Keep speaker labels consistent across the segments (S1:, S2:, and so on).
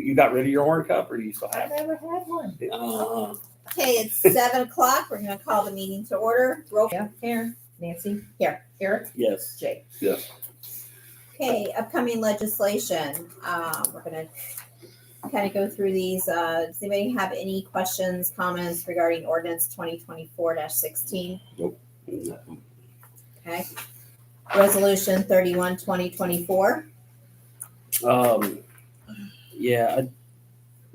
S1: You got rid of your horn cup or do you still
S2: I've
S1: have it?
S2: never had one.
S3: Uh-huh.
S1: Uh,
S4: Okay, it's seven o'clock. We're gonna call the meeting to order. Roll.
S2: Yeah, Karen, Nancy, here, Eric,
S1: yes.
S2: Jake.
S4: Okay, upcoming legislation. Um, we're gonna kind of go through these. Uh, does anybody have any questions, comments regarding ordinance twenty twenty-four sixteen? Okay. Resolution 31 2024.
S3: Um, yeah, I,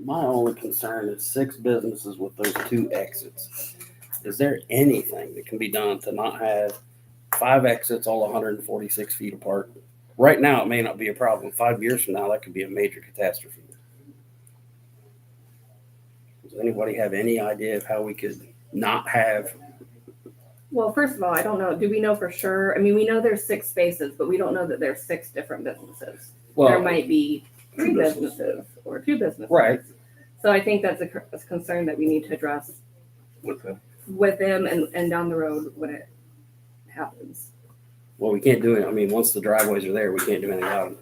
S3: my only concern is six businesses with those two exits. Is there anything that can be done to not have five exits all hundred and forty-six feet apart? Right now, it may not be a problem. Five years from now, that could be a major catastrophe. Does anybody have any idea of how we could not have,
S5: Well, first of all, I don't know. Do we know for sure? I mean, we know there's six spaces, but we don't know that there's six different businesses. there
S3: well,
S5: might be three
S3: two businesses.
S5: businesses or two businesses.
S3: Right.
S5: So I think that's a, cur- a concern that we need to address
S3: with the-
S5: with them and, and down the road when it happens.
S3: well, we can't do it. I mean, once the driveways are there, we can't do anything about it.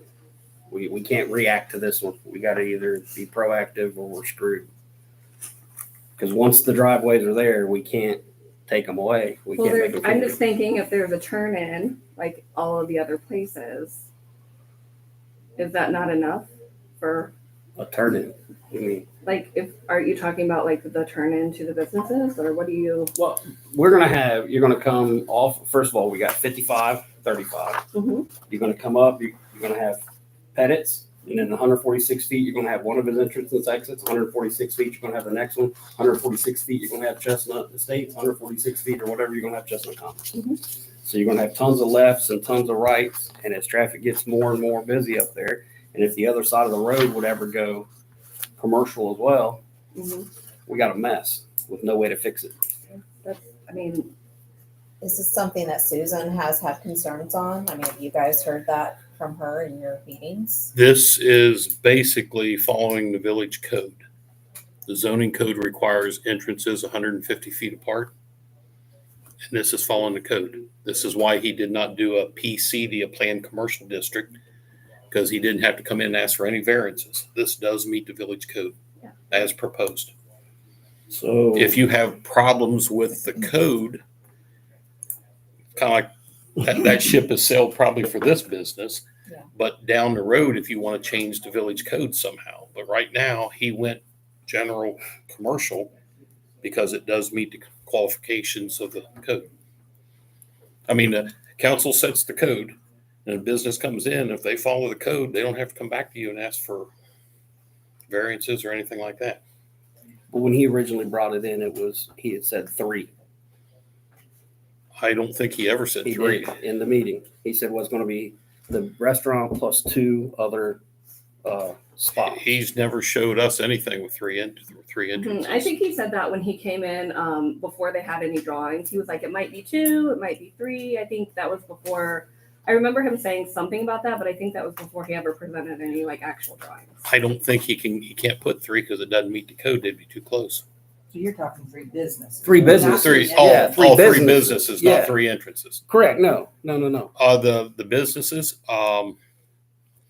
S3: We, we can't react to this one. We gotta either be proactive or we're screwed. Cause once the driveways are there, we can't take them away. We
S5: well,
S3: can't
S5: there,
S3: make them.
S5: I'm just thinking if there's a turn in, like all of the other places, is that not enough for,
S3: A turn in. I mean,
S5: like, if, are you talking about like the turn in to the businesses or what do you?
S3: well, we're gonna have, you're gonna come off, first of all, we got 55, 35.
S5: Mhm.
S3: You're gonna come up, you're, you're gonna have Pettit's, and then hundred forty-six feet, you're gonna have one of his entrances, exits, hundred forty-six feet, you're gonna have the next one, hundred forty-six feet, you're gonna have Chestnut Estates, hundred forty-six feet or whatever, you're gonna have Chestnut Commons. So you're gonna have tons of lefts and tons of rights, and as traffic gets more and more busy up there, and if the other side of the road would ever go commercial as well,
S5: Mhm.
S3: we got a mess with no way to fix it.
S5: That's, I mean,
S4: This is something that Susan has had concerns on. I mean, have you guys heard that from her in your meetings?
S6: This is basically following the village code. The zoning code requires entrances hundred and fifty feet apart. And this is following the code. This is why he did not do a PCD, a planned commercial district, because he didn't have to come in and ask for any variances. This does meet the village code
S5: Yeah.
S6: as proposed.
S3: So.
S6: If you have problems with the code, kind of like that, that ship has sailed probably for this business.
S4: Yeah.
S6: But down the road, if you want to change the village code somehow, but right now he went general commercial because it does meet the qualifications of the code. I mean, the council sets the code and a business comes in, if they follow the code, they don't have to come back to you and ask for variances or anything like that.
S3: But when he originally brought it in, it was, he had said three.
S6: I don't think he ever said
S3: He
S6: three.
S3: did in the meeting. He said was going to be the restaurant plus two other uh, spots.
S6: He's never showed us anything with three in, three
S5: Mhm.
S6: entrances.
S5: I think he said that when he came in, um, before they had any drawings, he was like, it might be two, it might be three. I think that was before, I remember him saying something about that, but I think that was before he ever presented any like actual drawings.
S6: I don't think he can, he can't put three because it doesn't meet the code. They'd be too close.
S2: So you're talking three businesses.
S3: Three businesses.
S6: Three,
S3: Yeah,
S6: all,
S3: three
S6: all three
S3: businesses.
S6: businesses,
S3: Yeah.
S6: not three entrances.
S3: Correct. No, no, no, no.
S6: Uh, the, the businesses, um,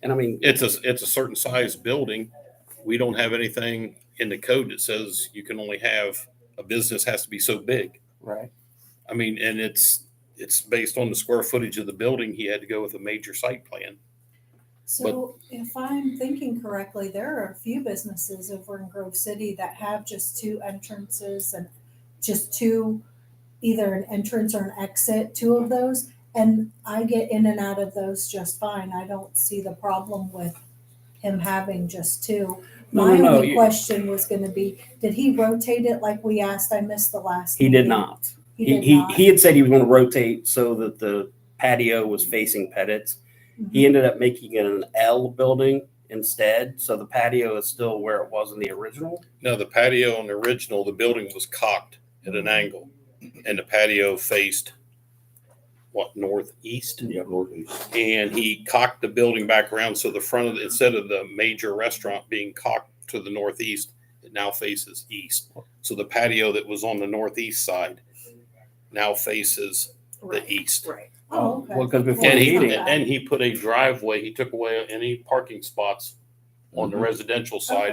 S3: And I mean,
S6: it's a, it's a certain size building. We don't have anything in the code that says you can only have, a business has to be so big.
S3: right.
S6: I mean, and it's, it's based on the square footage of the building. He had to go with a major site plan.
S7: So if I'm thinking correctly, there are a few businesses over in Grove City that have just two entrances and just two, either an entrance or an exit, two of those. And I get in and out of those just fine. I don't see the problem with him having just two.
S3: No,
S7: My
S3: no, no.
S7: only
S3: You,
S7: question was gonna be, did he rotate it like we asked? I missed the last.
S3: he did
S7: meeting.
S3: not.
S7: He
S3: He
S7: did
S3: he,
S7: not.
S3: he had said he was going to rotate so that the patio was facing Pettit's.
S7: Mm-hmm.
S3: He ended up making it an L building instead, so the patio is still where it was in the original.
S6: No, the patio on the original, the building was cocked at an angle and the patio faced what, northeast?
S3: Yeah,
S6: And he cocked the building back around. So the front of, instead of the major restaurant being cocked to the northeast, it now faces east. So the patio that was on the northeast side now faces the east.
S5: Right.
S7: Oh, okay.
S3: Well, because before
S6: And
S3: the
S6: he,
S3: meeting,
S6: and he put a driveway, he took away any parking spots on the residential side.